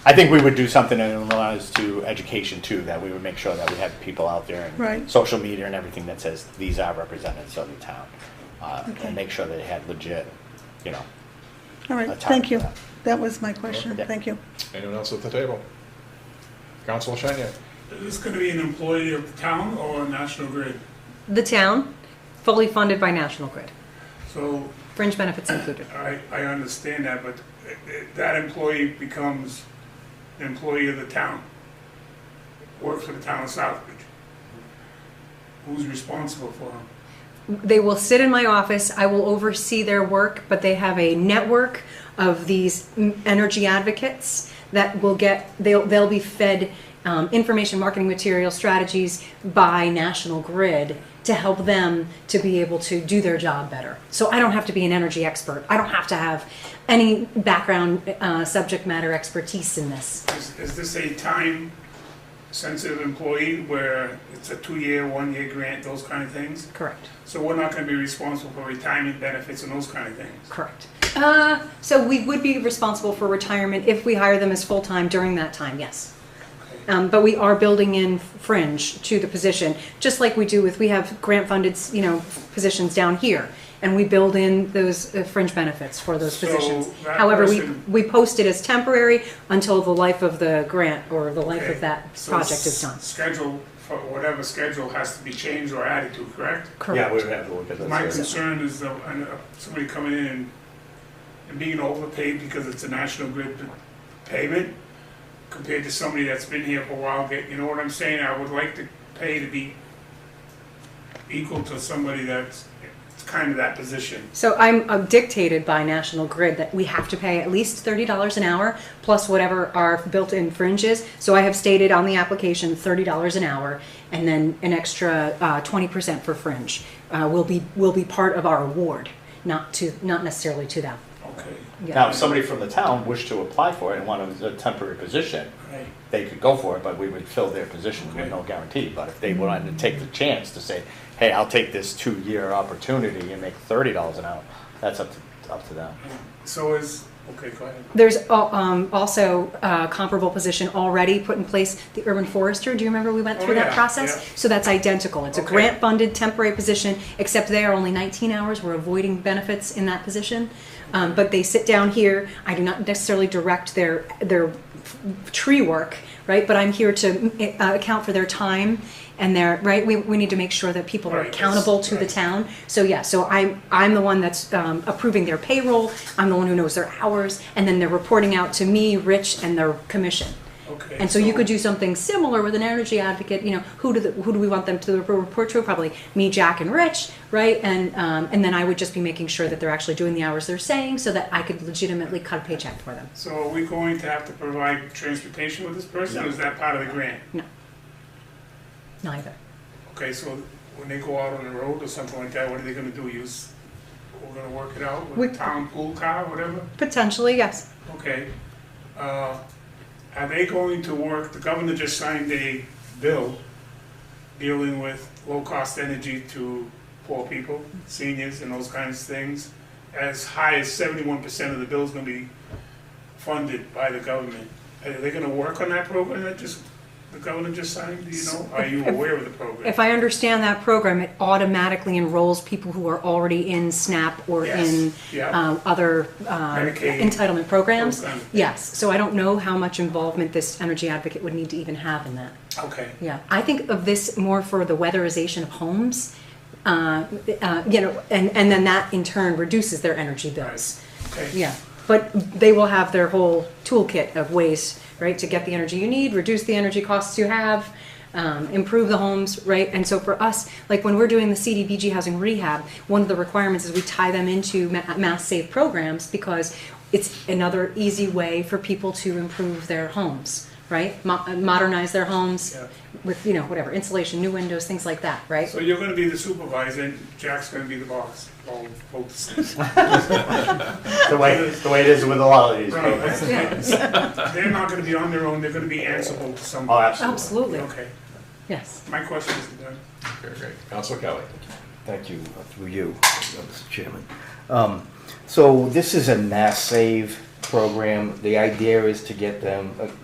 I think we would do something in regards to education too, that we would make sure that we have people out there and Right. social media and everything that says these are representatives of the town, uh, Okay. and make sure that they had legit, you know. All right, I'll talk thank to you. that. That was my question. Yeah. Thank you. Anyone else at the table? Councilor Shania? Is this going to be an employee of the town or National Grid? The town, fully funded by National Grid, So fringe benefits included. I, I understand that, but i- i- that employee becomes an employee of the town, works for the town of Southbridge. Who's responsible for him? They will sit in my office, I will oversee their work, but they have a network of these m- energy advocates that will get, they'll, they'll be fed um, information, marketing material, strategies by National Grid to help them to be able to do their job better. So I don't have to be an energy expert. I don't have to have any background, uh, subject matter expertise in this. Is, is this a time-sensitive employee where it's a two-year, one-year grant, those kind of things? Correct. So we're not going to be responsible for retirement benefits and those kind of things? Correct. Uh, so we would be responsible for retirement if we hire them as full-time during that time, yes. Um, but we are building in fringe to the position, just like we do with, we have grant-funded, you know, positions down here. And we build in those uh, fringe benefits for those So positions. that However, we, person- we post it as temporary until the life of the grant or the life Okay, of that so project s- is done. Schedule, for whatever schedule has to be changed or added to, correct? Yeah, we Correct. would have to look at this. My yeah. concern is that I know somebody coming in and- and being overpaid because it's a national grid p- payment compared to somebody that's been here for a while, get- you know what I'm saying? I would like to pay to be equal to somebody that's, it's kind of that position. So I'm uh, dictated by National Grid that we have to pay at least thirty dollars an hour plus whatever our built-in fringe is. So I have stated on the application thirty dollars an hour and then an extra uh, twenty percent for fringe uh, will be will be part of our award, not to not necessarily to them. Okay. Yeah. Now, if somebody from the town wished to apply for it and wanted a temporary position, Right. they could go for it, but we would fill their position with no guarantee. But if they wanted to take the chance to say, hey, I'll take this two-year opportunity and make thirty dollars an hour, that's up to, up to them. So is, okay, go ahead. There's al- um, also a comparable position already put in place, the urban forester. Do you remember we went Oh, through that yeah, process? yeah. So that's identical. It's a Okay. grant-funded temporary position, except they are only 19 hours. We're avoiding benefits in that position. Um, But they sit down here. I do not necessarily direct their, their f- tree work, right? But I'm here to uh, account for their time and their, right? We, we need to make sure that people are Right, that's- accountable to the right. town. So yeah, so I'm, I'm the one that's um, approving their payroll, I'm the one who knows their hours, and then they're reporting out to me, Rich, and their commission. Okay. And so you could do something similar with an energy advocate, you know, who do, the- who do we want them to report to? Probably me, Jack, and Rich, right? And, um, and then I would just be making sure that they're actually doing the hours they're saying so that I could legitimately cut a paycheck for them. So are we going to have to provide transportation with this person, or is that part of the grant? Neither. Okay, so when they go out on the road or something like that, what are they gonna do, use, we're gonna work it out with We- a town pool car, whatever? Potentially, yes. Okay. Uh, Are they going to work, the governor just signed a bill dealing with low-cost energy to poor people, seniors and those kinds of things. As high as seventy-one percent of the bill's gonna be funded by the government. Are they gonna work on that program that just, the governor just signed, do you know? Are you aware of the program? If I understand that program, it automatically enrolls people who are already in SNAP or Yes. in Yeah. um, other um, Medicaid entitlement programs. program. Yes, so I don't know how much involvement this energy advocate would need to even have in that. Okay. Yeah, I think of this more for the weatherization of homes, uh, uh, you know, and, and then that in turn reduces their energy bills. Okay. Yeah, but they will have their whole toolkit of ways, right, to get the energy you need, reduce the energy costs you have, um, improve the homes, right? And so for us, like when we're doing the CDBG housing rehab, one of the requirements is we tie them into ma- mass save programs because it's another easy way for people to improve their homes, right? Mo- uh, modernize their homes Yeah. with, you know, whatever, insulation, new windows, things like that, right? So you're gonna be the supervisor and Jack's gonna be the boss, all folks. The way, the way it is with a lot of these Right, people. that's Yeah. fine. They're not gonna be on their own, they're gonna be answerable to Oh, somebody. absolutely. Absolutely, Okay, yes. my question is done. Very great. Councilor Kelly? Thank you, uh, through you, uh, Mr. Chairman. Um, So this is a mass save program. The idea is to get them, uh,